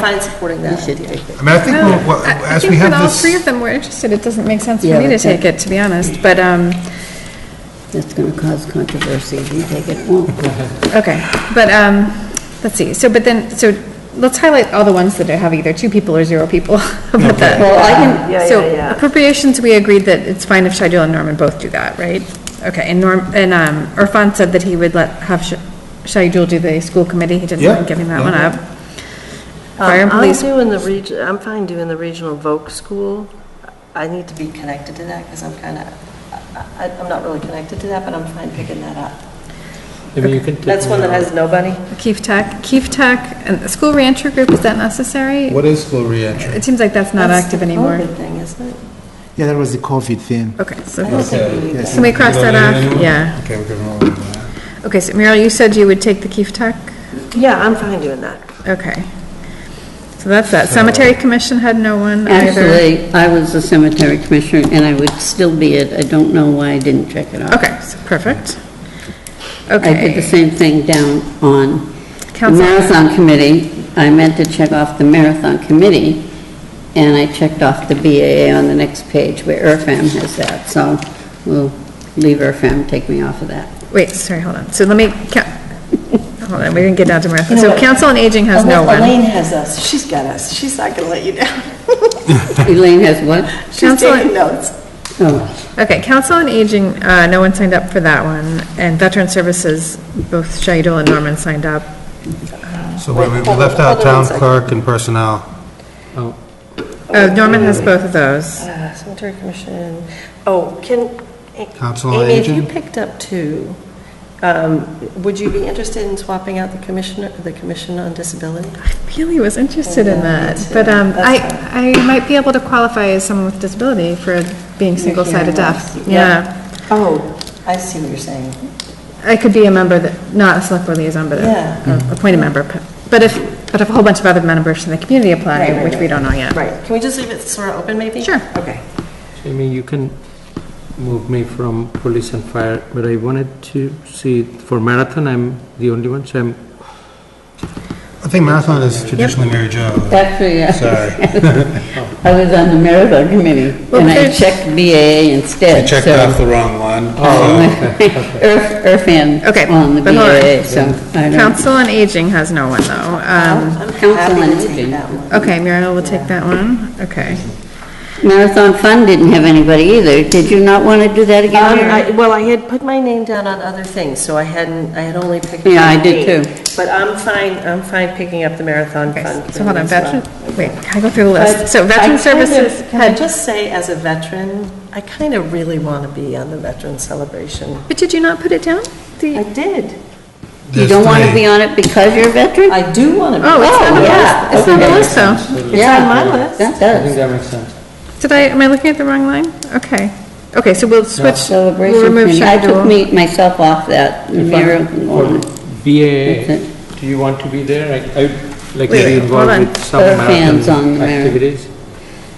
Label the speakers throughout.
Speaker 1: fine supporting
Speaker 2: You
Speaker 1: that
Speaker 2: should
Speaker 1: idea.
Speaker 2: take it.
Speaker 3: I mean, I think, we'll- well,
Speaker 4: I
Speaker 3: as
Speaker 4: think
Speaker 3: we have
Speaker 4: that all
Speaker 3: this,
Speaker 4: three of them were interested, it doesn't make sense
Speaker 2: Yeah,
Speaker 4: for me to
Speaker 2: that's
Speaker 4: take
Speaker 2: it.
Speaker 4: it, to be honest, but, um,
Speaker 2: It's going to cause controversy if you take it. Won't.
Speaker 4: okay, but, um, let's see, so, but then, so, let's highlight all the ones that have either two people or zero people. But the-
Speaker 2: Well, I
Speaker 1: Yeah,
Speaker 2: can,
Speaker 1: yeah,
Speaker 4: Um, So
Speaker 1: yeah.
Speaker 4: appropriations, we agreed that it's fine if Shadul and Norman both do that, right? Okay, and Norm, and, um, Irfan said that he would let, have Sh- Shadul do the school committee, he didn't
Speaker 3: Yeah,
Speaker 4: mind giving that
Speaker 3: yeah.
Speaker 4: one up.
Speaker 1: Um,
Speaker 4: Fire and police,
Speaker 1: I'm doing the region, I'm fine doing the regional voc school. I need to be connected to that because I'm kind of, I'm not really connected to that, but I'm fine picking that up.
Speaker 5: Maybe you could. take
Speaker 1: That's one that has nobody.
Speaker 4: Keef Tech, Keef Tech, and the school rancher group, is that necessary?
Speaker 6: What is school reentry?
Speaker 4: It seems like that's not
Speaker 1: That's
Speaker 4: active
Speaker 1: the
Speaker 4: anymore.
Speaker 1: COVID thing, isn't it?
Speaker 6: Yeah, that was the COVID thing.
Speaker 4: Okay, so,
Speaker 1: I don't think we need
Speaker 6: Yes.
Speaker 4: can we cross
Speaker 3: You don't
Speaker 4: that
Speaker 3: need
Speaker 4: off?
Speaker 3: anyone?
Speaker 4: Yeah.
Speaker 3: Okay, we're giving all of them
Speaker 4: Okay, so Muriel, you said you would take the Keef Tech?
Speaker 1: that. Yeah, I'm fine doing that.
Speaker 4: Okay. So that's that. Cemetery Commission had no one either.
Speaker 2: actually, I was the cemetery commissioner, and I would still be it. I don't know why I didn't check it off.
Speaker 4: Okay, so perfect.
Speaker 2: I did the
Speaker 4: Okay.
Speaker 2: same thing down on the
Speaker 4: Council-
Speaker 2: marathon committee. I meant to check off the marathon committee, and I checked off the BAA on the next page where ERFAM has that, so we'll leave ERFAM, take me off of that.
Speaker 4: Wait, sorry, hold on. So let me, ca- hold on, we didn't get down to Marathon.
Speaker 1: You know
Speaker 4: So
Speaker 1: what?
Speaker 4: Council on Aging has no
Speaker 1: Unless
Speaker 4: one.
Speaker 1: Oh, Elaine has us. She's got us. She's not going to let you down.
Speaker 2: Elaine has what?
Speaker 1: She's
Speaker 4: Council-
Speaker 1: taking notes.
Speaker 2: Oh,
Speaker 4: Okay, Council on Aging, uh, no one signed up for that one. And Veteran Services, both Shaidul and Norman signed up.
Speaker 3: out. So we we
Speaker 1: Hold on,
Speaker 3: left out
Speaker 1: hold on one
Speaker 3: town
Speaker 1: second.
Speaker 3: clerk and personnel.
Speaker 4: Oh, Norman has both of those.
Speaker 1: Uh, Cemetery Commission, oh, can,
Speaker 3: Council on
Speaker 1: Amy, if you
Speaker 3: Aging?
Speaker 1: picked up two, um, would you be interested in swapping out the commissioner, the Commission on Disability?
Speaker 4: Really was interested in that, but um, I, I might be able to qualify as someone with disability for being single-sided deaf. Yeah,
Speaker 1: Oh, I see what you're saying.
Speaker 4: I could be a member that, not a select board liaison, but
Speaker 1: Yeah.
Speaker 4: a- a appointed member. But if, but if a whole bunch of other members from the community
Speaker 1: Right,
Speaker 4: apply,
Speaker 1: right,
Speaker 4: which we
Speaker 1: right.
Speaker 4: don't know yet.
Speaker 1: Right, can we just leave it sort of open, maybe?
Speaker 4: Sure.
Speaker 1: Okay.
Speaker 5: Jamie, you can move me from police and fire, but I wanted to see, for marathon, I'm the only one, so I'm,
Speaker 3: I think marathon is traditionally Mary Jo.
Speaker 2: actually, yeah.
Speaker 3: Sorry.
Speaker 2: I was on the marathon committee,
Speaker 4: Well,
Speaker 2: and I
Speaker 4: there's-
Speaker 2: checked BAA instead.
Speaker 3: I checked
Speaker 2: so- Oh.
Speaker 3: off the wrong one. so-
Speaker 2: Irf- Irfan
Speaker 4: Okay,
Speaker 2: on the
Speaker 4: but hold on.
Speaker 2: BAA, so I don't.
Speaker 4: Council on Aging has no one, though.
Speaker 1: Oh.
Speaker 4: Um,
Speaker 1: I'm
Speaker 2: Council on
Speaker 1: happy to
Speaker 2: Aging.
Speaker 1: take that one.
Speaker 4: Okay, Muriel will take that one, okay.
Speaker 2: Marathon Fund didn't have anybody either. Did you not want to do that again?
Speaker 1: Um,
Speaker 2: Mary?
Speaker 1: I- Well, I had put my name down on other things, so I hadn't, I had only picked.
Speaker 2: Yeah, I
Speaker 1: up
Speaker 2: did
Speaker 1: eight.
Speaker 2: too.
Speaker 1: But I'm fine, I'm fine picking up the Marathon
Speaker 4: Okay,
Speaker 1: Fund.
Speaker 4: So hold on,
Speaker 1: as well.
Speaker 4: veteran, wait, can I go through the
Speaker 1: But
Speaker 4: list? So
Speaker 1: I
Speaker 4: Veteran
Speaker 1: kind of-
Speaker 4: Services
Speaker 1: Can I
Speaker 4: had,
Speaker 1: just say, as a veteran, I kind of really want to be on the veteran celebration.
Speaker 4: but did you not put it down? The-
Speaker 1: I did.
Speaker 2: You
Speaker 3: There's
Speaker 2: don't want to
Speaker 3: three.
Speaker 2: be on it because you're a veteran?
Speaker 1: I do want to be.
Speaker 4: Oh, it's not on the
Speaker 2: yeah,
Speaker 4: list, it's not on the list, though.
Speaker 1: It's on my list.
Speaker 2: That
Speaker 5: I think
Speaker 2: does.
Speaker 5: that makes sense.
Speaker 4: Did I, am I looking at the wrong line? Okay. Okay, so we'll switch, we'll
Speaker 2: Celebration
Speaker 4: remove
Speaker 2: committee. I took
Speaker 4: Shadul.
Speaker 2: me, myself off that. Muriel can go on. That's it.
Speaker 5: BAA, do you want to be there? I- I'd like to be
Speaker 4: Wait, hold
Speaker 5: involved
Speaker 4: on.
Speaker 5: with some
Speaker 2: Other fans on the
Speaker 5: marathon
Speaker 2: marathon.
Speaker 5: activities.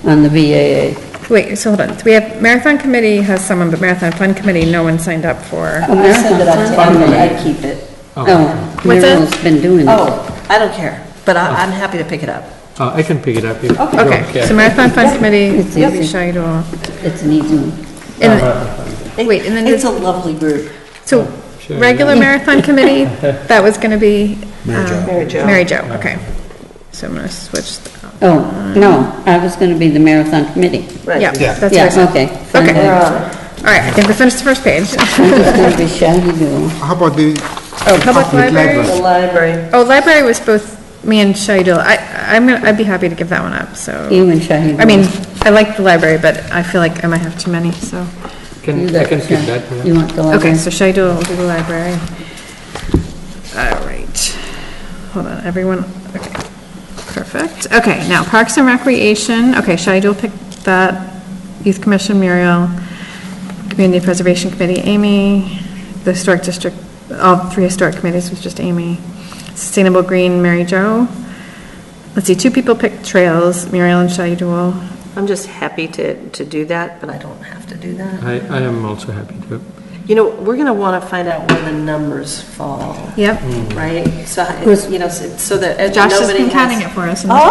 Speaker 2: on the BAA.
Speaker 4: Wait, so hold on. We have Marathon Committee has someone, but Marathon Fund Committee, no one signed up for.
Speaker 1: I said that I
Speaker 2: Marathon
Speaker 1: take
Speaker 2: Fund,
Speaker 1: it.
Speaker 2: I keep it.
Speaker 5: Oh.
Speaker 2: Oh,
Speaker 4: What's that?
Speaker 2: Muriel's been doing this.
Speaker 1: Oh, I don't care, but I- I'm happy to pick it up.
Speaker 5: Uh, I can pick it up if you
Speaker 4: Okay,
Speaker 5: don't
Speaker 4: so
Speaker 5: care.
Speaker 4: Marathon Fund Committee,
Speaker 2: It's easy.
Speaker 4: Shadul.
Speaker 2: It's an easy one.
Speaker 4: And,
Speaker 1: It-
Speaker 4: Wait, and then
Speaker 1: It's a lovely group.
Speaker 4: so,
Speaker 5: Sure.
Speaker 4: regular Marathon Committee, that was going to be? Mary Jo.
Speaker 1: Mary Jo.
Speaker 4: Mary Jo, okay. So I'm going to switch, th-
Speaker 2: Oh, no, I was going to be the marathon committee.
Speaker 1: Right.
Speaker 4: yeah, that's what I
Speaker 2: Yeah,
Speaker 4: said.
Speaker 2: okay.
Speaker 4: Okay.
Speaker 2: Fine,
Speaker 4: All
Speaker 2: I'm
Speaker 4: right, I think we finished the first page.
Speaker 2: just going to be shabby girl.
Speaker 6: How about the
Speaker 4: Oh, Public
Speaker 6: Public
Speaker 4: Library.
Speaker 1: The library.
Speaker 4: Oh, library was both me and Shaidul. I, I'm, gonna- I'd be happy to give that one up, so.
Speaker 2: You and Shahid.
Speaker 4: I mean, I like the library, but I feel like I might have too many, so.
Speaker 5: Can, I can keep that. yeah.
Speaker 2: You want the
Speaker 4: Okay,
Speaker 2: library?
Speaker 4: so Shaidul will do the library. All right. Hold on, everyone, okay. Perfect. Okay, now Parks and Recreation, okay, Shaidul picked that. Youth Commission, Muriel. Community Preservation Committee, Amy. The Historic District, all three historic committees was just Amy. Sustainable Green, Mary Jo. Let's see, two people picked trails, Muriel and Shaidul.
Speaker 1: I'm just happy to, to do that, but I don't have to do that.
Speaker 5: I, I am also happy to.
Speaker 1: You know, we're going to want to find out where the numbers fall,
Speaker 4: Yep.
Speaker 1: right? So,
Speaker 2: Who's-
Speaker 1: you know, so so that. uh,
Speaker 4: Josh has
Speaker 1: nobody
Speaker 4: been
Speaker 1: has-
Speaker 4: counting it for us. in the-
Speaker 1: Oh,